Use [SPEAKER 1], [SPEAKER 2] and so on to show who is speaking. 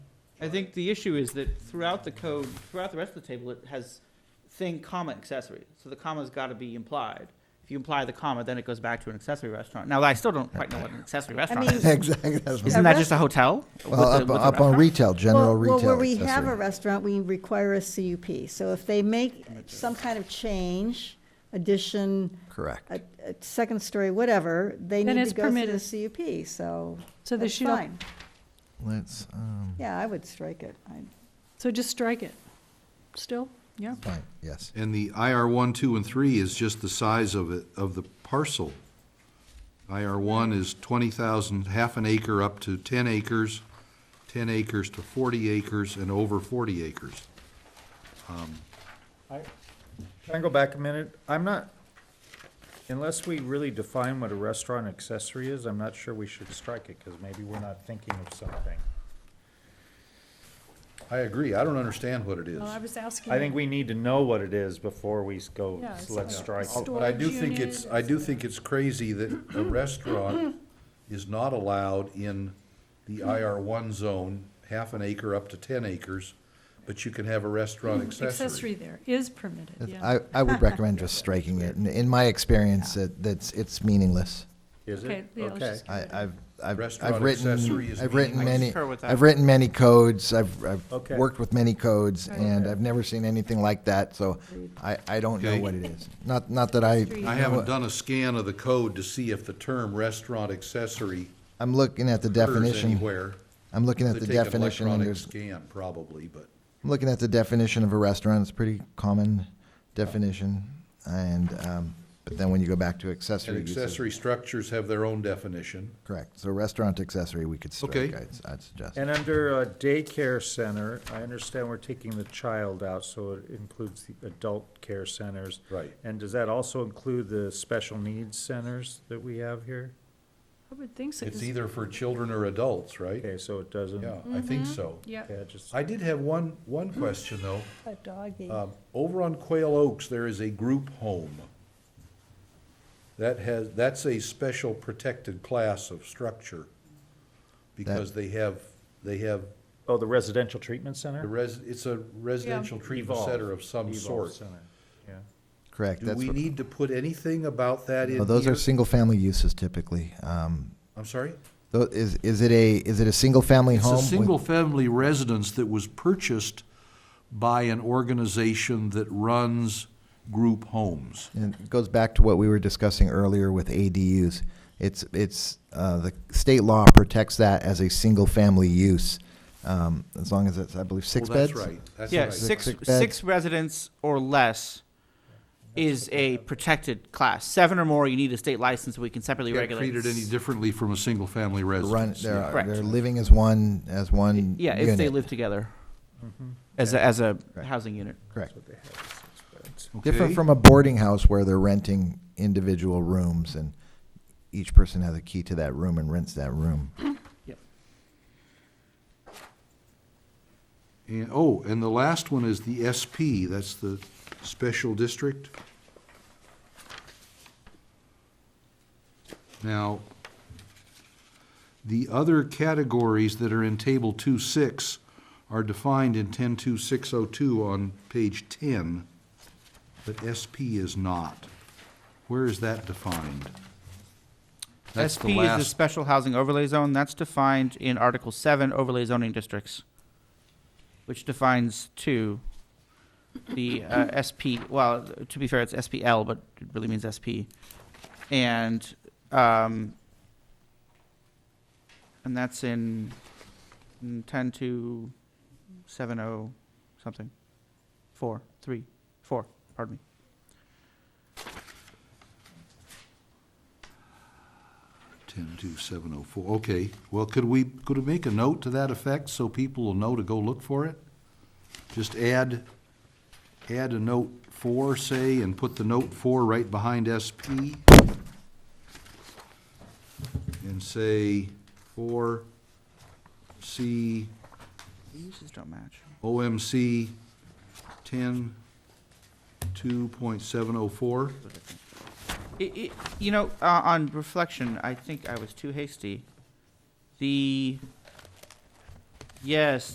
[SPEAKER 1] I think the issue is that throughout the code, throughout the rest of the table, it has thing, comma, accessory. So the comma's gotta be implied. If you imply the comma, then it goes back to an accessory restaurant. Now, I still don't quite know what an accessory restaurant
[SPEAKER 2] mean-
[SPEAKER 1] is.
[SPEAKER 3] Exactly. that's what-
[SPEAKER 1] Isn't that just a hotel? with
[SPEAKER 3] Well,
[SPEAKER 1] the-
[SPEAKER 3] up,
[SPEAKER 1] with the
[SPEAKER 3] up on
[SPEAKER 1] restaurant?
[SPEAKER 3] retail, general
[SPEAKER 2] Well-
[SPEAKER 3] retail.
[SPEAKER 2] Well, where we have a
[SPEAKER 3] accessory.
[SPEAKER 2] restaurant, we require a CUP. So if they make some kind of change, addition,
[SPEAKER 3] Correct.
[SPEAKER 2] a, a second story, whatever, they
[SPEAKER 4] Then
[SPEAKER 2] need
[SPEAKER 4] it's
[SPEAKER 2] to go through the
[SPEAKER 4] permitted.
[SPEAKER 2] CUP, so
[SPEAKER 4] So they
[SPEAKER 2] that's
[SPEAKER 4] should, al-
[SPEAKER 2] fine.
[SPEAKER 3] Let's, um,
[SPEAKER 2] Yeah, I would strike it. I-
[SPEAKER 4] so just strike it, still, yeah.
[SPEAKER 3] fine, yes.
[SPEAKER 5] And the IR one, two, and three is just the size of it, of the parcel. IR one is twenty thousand, half an acre up to ten acres, ten acres to forty acres, and over forty acres.
[SPEAKER 6] Can I go back a minute? I'm not, unless we really define what a restaurant accessory is, I'm not sure we should strike it, because maybe we're not thinking of something.
[SPEAKER 5] I agree, I don't understand what it is.
[SPEAKER 4] Well, Oh, I was asking.
[SPEAKER 6] I think we need to know what it is before we s- go,
[SPEAKER 4] Yeah,
[SPEAKER 6] s-
[SPEAKER 4] it's
[SPEAKER 6] let's
[SPEAKER 4] like
[SPEAKER 6] strike.
[SPEAKER 4] store-
[SPEAKER 6] it.
[SPEAKER 5] But I do
[SPEAKER 4] Storage
[SPEAKER 5] think
[SPEAKER 4] unit.
[SPEAKER 5] it's, I do think it's crazy that a restaurant is not allowed in the IR one zone, half an acre up to ten acres, but you can have a restaurant accessory.
[SPEAKER 4] Accessory there is permitted, yeah.
[SPEAKER 3] I, I would recommend just striking it. In- In my experience, it, that's, it's meaningless.
[SPEAKER 6] Is
[SPEAKER 4] Okay,
[SPEAKER 6] it?
[SPEAKER 4] yeah, let's
[SPEAKER 5] Okay.
[SPEAKER 4] just get
[SPEAKER 3] I,
[SPEAKER 4] rid of it.
[SPEAKER 3] I've, I've,
[SPEAKER 5] Restaurant
[SPEAKER 3] I've written,
[SPEAKER 5] accessory is
[SPEAKER 3] I've written
[SPEAKER 5] meaningless.
[SPEAKER 1] I
[SPEAKER 3] many,
[SPEAKER 1] concur with that.
[SPEAKER 3] I've written many codes, I've,
[SPEAKER 6] Okay.
[SPEAKER 3] I've worked with many codes,
[SPEAKER 4] Right.
[SPEAKER 3] and I've never seen anything like that, so I, I don't know
[SPEAKER 5] Okay.
[SPEAKER 3] what it is. Not, not that I.
[SPEAKER 5] I haven't done a scan of the code to see if the term restaurant accessory
[SPEAKER 3] I'm looking at the
[SPEAKER 5] occurs
[SPEAKER 3] definition.
[SPEAKER 5] anywhere.
[SPEAKER 3] I'm looking at
[SPEAKER 5] They
[SPEAKER 3] the
[SPEAKER 5] take an
[SPEAKER 3] definition, and
[SPEAKER 5] electronic
[SPEAKER 3] there's,
[SPEAKER 5] Scan, probably, but
[SPEAKER 3] I'm looking at the definition of a restaurant, it's a pretty common definition, and, um, but then when you go back to accessory
[SPEAKER 5] and
[SPEAKER 3] uses-
[SPEAKER 5] accessory structures have their own definition.
[SPEAKER 3] Correct, so restaurant accessory, we could strike,
[SPEAKER 5] Okay.
[SPEAKER 3] I'd, I'd suggest.
[SPEAKER 6] And under uh, daycare center, I understand we're taking the child out, so it includes the adult care centers.
[SPEAKER 5] Right.
[SPEAKER 6] And does that also include the special needs centers that we have here?
[SPEAKER 4] I would think so.
[SPEAKER 5] It's
[SPEAKER 4] This- Mm-hmm.
[SPEAKER 5] either for children or adults, right?
[SPEAKER 6] Okay, so it doesn't,
[SPEAKER 5] Yeah, I think so.
[SPEAKER 4] Yeah,
[SPEAKER 6] yeah, just,
[SPEAKER 5] I did have one, one question, though.
[SPEAKER 4] a doggy.
[SPEAKER 3] Uh,
[SPEAKER 5] Um, Over on Quail Oaks, there is a group home. That has, that's a special protected class of structure because they have, they have,
[SPEAKER 6] oh, the residential treatment
[SPEAKER 5] the
[SPEAKER 6] center?
[SPEAKER 5] res, it's a residential treatment
[SPEAKER 6] Evolve.
[SPEAKER 5] center of some
[SPEAKER 6] Evolve
[SPEAKER 5] sort.
[SPEAKER 6] Center, Yeah.
[SPEAKER 3] Correct,
[SPEAKER 5] Do
[SPEAKER 3] that's,
[SPEAKER 5] we
[SPEAKER 3] what-
[SPEAKER 5] need to put anything about that in
[SPEAKER 3] no, those are
[SPEAKER 5] here?
[SPEAKER 3] single-family uses typically. Um,
[SPEAKER 5] I'm sorry?
[SPEAKER 3] tho- is, is it a, is it a single-family
[SPEAKER 5] It's
[SPEAKER 3] home?
[SPEAKER 5] a
[SPEAKER 3] with-
[SPEAKER 5] single-family residence that was purchased by an organization that runs group homes.
[SPEAKER 3] And it goes back to what we were discussing earlier with ADUs. It's, it's, uh, the state law protects that as a single-family use, um, as long as it's, I believe, six
[SPEAKER 5] Well,
[SPEAKER 3] beds?
[SPEAKER 5] That's right, that's
[SPEAKER 1] Yeah,
[SPEAKER 5] right.
[SPEAKER 1] six,
[SPEAKER 3] Six beds.
[SPEAKER 1] six residents or less is a protected class. Seven or more, you need a state license, we can separately
[SPEAKER 5] Can't
[SPEAKER 1] regulate.
[SPEAKER 5] treat it any differently from a single-family
[SPEAKER 3] Run,
[SPEAKER 5] residence.
[SPEAKER 3] they're,
[SPEAKER 1] Correct.
[SPEAKER 3] they're living as one, as one
[SPEAKER 1] Yeah, if they
[SPEAKER 3] unit. Mm-hmm.
[SPEAKER 1] live together as a, as a housing unit.
[SPEAKER 3] Correct.
[SPEAKER 6] They have six beds.
[SPEAKER 3] Different
[SPEAKER 5] Okay.
[SPEAKER 3] from a boarding house where they're renting individual rooms and each person has a key to that room and rents that room.
[SPEAKER 5] And, oh, and the last one is the SP, that's the special district. Now, the other categories that are in Table 2-6 are defined in 10-2602 on page 10, but SP is not. Where is that defined? That's the
[SPEAKER 1] SP is the
[SPEAKER 5] last,
[SPEAKER 1] special housing overlay zone. That's defined in Article Seven overlay zoning districts, which defines two. The uh, SP, well, to be fair, it's SPL, but it really means SP, and um, and that's in in ten to seven oh something, four, three, four. Pardon me.
[SPEAKER 5] ten two seven oh four. okay. Well, could we, could we make a note to that effect so people will know to go look for it? Just add, add a note four, say, and put the note four right behind SP. And say four C
[SPEAKER 1] Uses don't match.
[SPEAKER 5] OMC ten two point seven oh four.
[SPEAKER 1] It, it, you know, uh, on reflection, I think I was too hasty. The, yes,